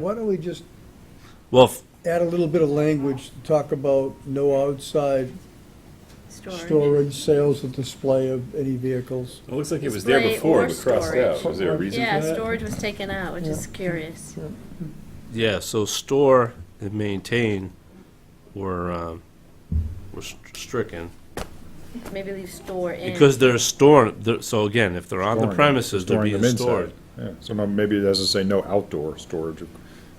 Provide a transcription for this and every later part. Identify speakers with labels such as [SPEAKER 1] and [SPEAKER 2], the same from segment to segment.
[SPEAKER 1] Why don't we just
[SPEAKER 2] Well, f-
[SPEAKER 1] add a little bit of language to talk about no outside storage, sales, and display of any vehicles?
[SPEAKER 3] It looks like it was there
[SPEAKER 4] Display
[SPEAKER 3] before,
[SPEAKER 4] or
[SPEAKER 3] but crossed out.
[SPEAKER 4] storage.
[SPEAKER 3] Uh, Was there a reason
[SPEAKER 4] Yeah,
[SPEAKER 3] for that?
[SPEAKER 4] storage was taken out, which is curious.
[SPEAKER 2] yeah, so store and maintain were, um, were st- stricken.
[SPEAKER 4] Maybe leave store in.
[SPEAKER 2] Because they're stored, they're- so again, if they're on the
[SPEAKER 5] Storing them,
[SPEAKER 2] premises, they're
[SPEAKER 5] storing
[SPEAKER 2] being
[SPEAKER 5] them inside.
[SPEAKER 2] stored.
[SPEAKER 5] Yeah, so now maybe it doesn't say no outdoor storage, or-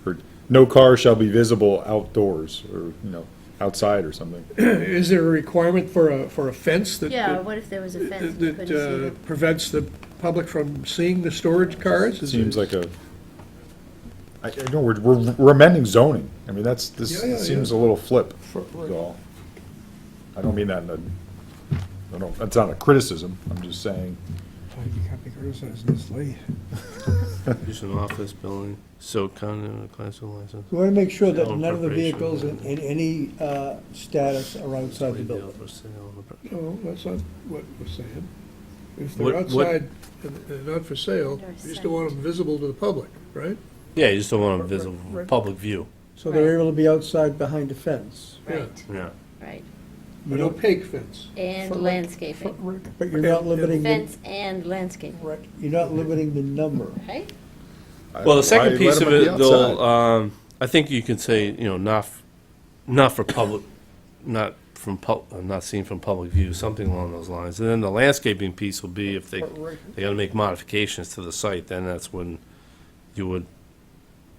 [SPEAKER 5] or no car shall be visible outdoors, or, you know, outside or something.
[SPEAKER 6] Is there a requirement for a, for a fence that?
[SPEAKER 4] Yeah,
[SPEAKER 6] that-
[SPEAKER 4] what if there was a fence? and you
[SPEAKER 6] That
[SPEAKER 4] couldn't see
[SPEAKER 6] uh,
[SPEAKER 4] them?
[SPEAKER 6] prevents the public from seeing the storage cars? Is
[SPEAKER 5] Seems
[SPEAKER 6] it-
[SPEAKER 5] like a, I, I know, we're, we're we're amending zoning, I mean, that's, this
[SPEAKER 6] Yeah, yeah,
[SPEAKER 5] seems a little flip, is all. I don't mean that in a, I don't, that's not a criticism, I'm just saying,
[SPEAKER 1] You can't be criticizing this late.
[SPEAKER 2] Use an office building, so kind of a class of license.
[SPEAKER 1] We want to make sure that
[SPEAKER 2] No
[SPEAKER 1] none of the
[SPEAKER 2] appropriation.
[SPEAKER 1] vehicles in, in any uh, status are outside the
[SPEAKER 2] Retail
[SPEAKER 1] building.
[SPEAKER 2] for sale on the pre-
[SPEAKER 6] No, that's not what we're saying.
[SPEAKER 2] What-
[SPEAKER 6] If they're
[SPEAKER 2] what-
[SPEAKER 6] outside and and not for sale,
[SPEAKER 4] They're
[SPEAKER 6] you still want them visible to the public, right?
[SPEAKER 2] Yeah, you just don't want a visible, public view,
[SPEAKER 1] So they're able to be outside behind a fence.
[SPEAKER 4] Right,
[SPEAKER 2] yeah.
[SPEAKER 4] right.
[SPEAKER 6] An opaque fence.
[SPEAKER 4] And
[SPEAKER 1] Front-
[SPEAKER 4] landscaping.
[SPEAKER 1] But you're not limiting, the
[SPEAKER 4] Fence and landscaping,
[SPEAKER 1] you're not limiting the number.
[SPEAKER 4] right?
[SPEAKER 5] I-
[SPEAKER 2] Well, the
[SPEAKER 5] why
[SPEAKER 2] second piece
[SPEAKER 5] let
[SPEAKER 2] of
[SPEAKER 5] 'em be
[SPEAKER 2] it, though,
[SPEAKER 5] outside?
[SPEAKER 2] um, I think you can say, you know, not, f- not for public, not from pub, uh, not seen from public view, something along those lines. And then the landscaping piece will be if they, they gotta make modifications to the site, then that's when you would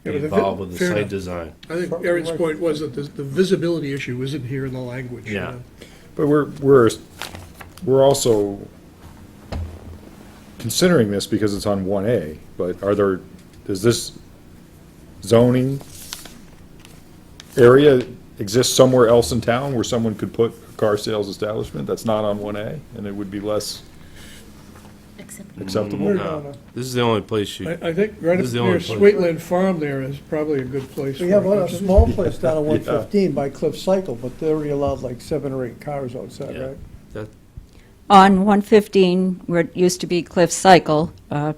[SPEAKER 6] Yeah,
[SPEAKER 2] be
[SPEAKER 6] but the vi-
[SPEAKER 2] involved with the
[SPEAKER 6] fair
[SPEAKER 2] site
[SPEAKER 6] enough.
[SPEAKER 2] design.
[SPEAKER 6] I think Aaron's point was that the, the visibility issue isn't here in the language. you
[SPEAKER 2] Yeah.
[SPEAKER 6] know.
[SPEAKER 5] But we're, we're, we're also considering this because it's on one A, but are there, does this zoning area exist somewhere else in town where someone could put a car sales establishment that's not on one A? And it would be less
[SPEAKER 4] Except
[SPEAKER 5] acceptable?
[SPEAKER 1] We're
[SPEAKER 2] No.
[SPEAKER 1] gonna-
[SPEAKER 2] This is the only place you,
[SPEAKER 6] I, I think right
[SPEAKER 2] This
[SPEAKER 6] up
[SPEAKER 2] is the only
[SPEAKER 6] near
[SPEAKER 2] place.
[SPEAKER 6] Sweetland Farm there is probably a good place.
[SPEAKER 1] We
[SPEAKER 6] for
[SPEAKER 1] have
[SPEAKER 6] it.
[SPEAKER 1] a small place down on 115 by Cliff Cycle, but they're only allowed like seven or eight cars outside,
[SPEAKER 2] Yeah.
[SPEAKER 1] right?
[SPEAKER 2] that,
[SPEAKER 7] On 115, where it used to be Cliff Cycle, uh,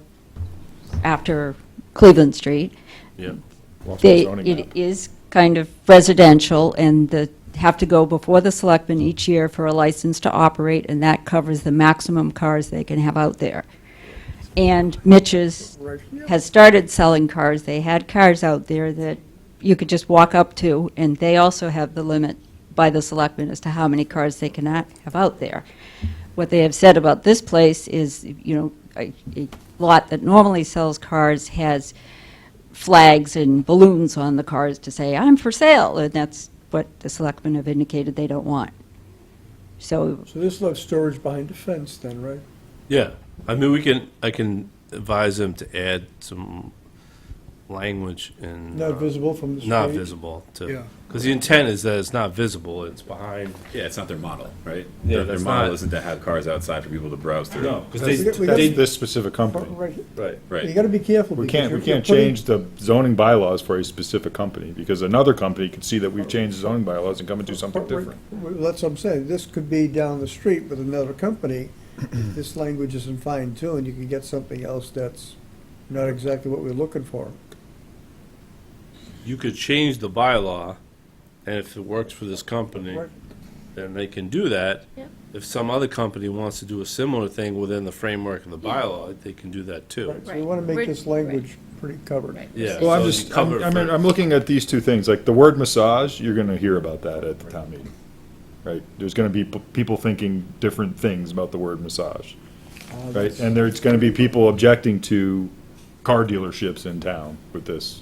[SPEAKER 7] after Cleveland Street,
[SPEAKER 2] yeah.
[SPEAKER 1] Mm-hmm.
[SPEAKER 5] Lost my
[SPEAKER 7] they,
[SPEAKER 5] zoning map.
[SPEAKER 7] it is kind of residential, and the, have to go before the selectmen each year for a license to operate, and that covers the maximum cars they can have out there. And Mitch's has started selling cars, they had cars out there that you could just walk up to, and they also have the limit by the selectmen as to how many cars they cannot have out there. What they have said about this place is, you know, a, a lot that normally sells cars has flags and balloons on the cars to say, I'm for sale, and that's what the selectmen have indicated they don't want. So,
[SPEAKER 1] So this left storage behind a fence then, right?
[SPEAKER 2] Yeah, I mean, we can, I can advise them to add some language and.
[SPEAKER 1] Not
[SPEAKER 2] uh,
[SPEAKER 1] visible from the street?
[SPEAKER 2] Not visible
[SPEAKER 6] Yeah.
[SPEAKER 2] to, because the intent is that it's not visible, it's behind.
[SPEAKER 3] Yeah, it's not their model, right?
[SPEAKER 2] Yeah,
[SPEAKER 3] Their, their
[SPEAKER 2] that's
[SPEAKER 3] model
[SPEAKER 2] not-
[SPEAKER 3] isn't to have cars outside for people to browse through.
[SPEAKER 1] We got-
[SPEAKER 2] Because
[SPEAKER 1] we
[SPEAKER 2] they,
[SPEAKER 1] got-
[SPEAKER 5] That's
[SPEAKER 2] they,
[SPEAKER 5] this
[SPEAKER 1] Right,
[SPEAKER 5] specific company.
[SPEAKER 1] right.
[SPEAKER 5] Right.
[SPEAKER 3] Right.
[SPEAKER 1] You gotta be careful.
[SPEAKER 5] We
[SPEAKER 1] because
[SPEAKER 5] can't, we
[SPEAKER 1] you're- you're
[SPEAKER 5] can't
[SPEAKER 1] putting-
[SPEAKER 5] change the zoning bylaws for a specific company, because another company could see that we've changed the zoning bylaws and come and do something
[SPEAKER 1] But we're-
[SPEAKER 5] different.
[SPEAKER 1] we're- That's what I'm saying, this could be down the street with another company, this language isn't fine tuned, you can get something else that's not exactly what we're looking for.
[SPEAKER 2] you could change the bylaw, and if it works for this company, then they can do that.
[SPEAKER 4] Yep.
[SPEAKER 2] If some other company wants to do a similar thing within the framework of the bylaw, they can do that too.
[SPEAKER 1] Right, So we wanna make
[SPEAKER 4] Right.
[SPEAKER 1] this language pretty covered.
[SPEAKER 4] Right.
[SPEAKER 2] Yeah.
[SPEAKER 5] Well, I'm
[SPEAKER 2] So
[SPEAKER 5] just,
[SPEAKER 2] you cover
[SPEAKER 5] I'm, I mean,
[SPEAKER 2] for-
[SPEAKER 5] I'm looking at these two things, like the word massage, you're gonna hear about that at the town meeting, right? There's gonna be p- people thinking different things about the word massage, right? And there's gonna be people objecting to car dealerships in town with this.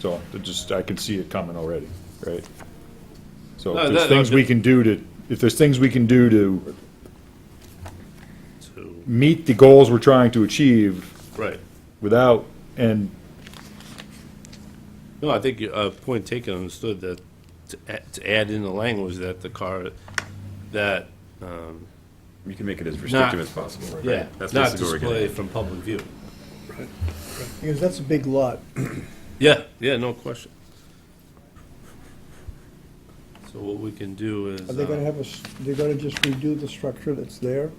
[SPEAKER 5] So, it just, I can see it coming already, right? So,
[SPEAKER 2] No,
[SPEAKER 5] if
[SPEAKER 2] that-
[SPEAKER 5] there's things
[SPEAKER 2] that-
[SPEAKER 5] we can do to, if there's things we can do to
[SPEAKER 2] So-
[SPEAKER 5] meet the goals we're trying to achieve
[SPEAKER 2] Right.
[SPEAKER 5] without, and
[SPEAKER 2] No, I think, uh, point taken, understood that to a- to add in the language that the car, that, um,
[SPEAKER 3] You can make it as restrictive as possible, right?
[SPEAKER 2] yeah,
[SPEAKER 3] That's
[SPEAKER 2] not
[SPEAKER 3] basically what we're
[SPEAKER 2] display
[SPEAKER 3] getting.
[SPEAKER 2] from public view.
[SPEAKER 1] Because that's a big lot.
[SPEAKER 2] Yeah, yeah, no question. So what we can do is,
[SPEAKER 1] Are they gonna
[SPEAKER 2] uh,
[SPEAKER 1] have a, s- they're gonna just redo the structure that's there?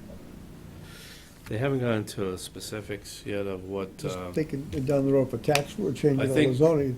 [SPEAKER 2] they haven't gotten to specifics yet of what,
[SPEAKER 1] Just
[SPEAKER 2] uh,
[SPEAKER 1] thinking down the road for tax, we're changing
[SPEAKER 2] I
[SPEAKER 1] all the
[SPEAKER 2] think-
[SPEAKER 1] zoning,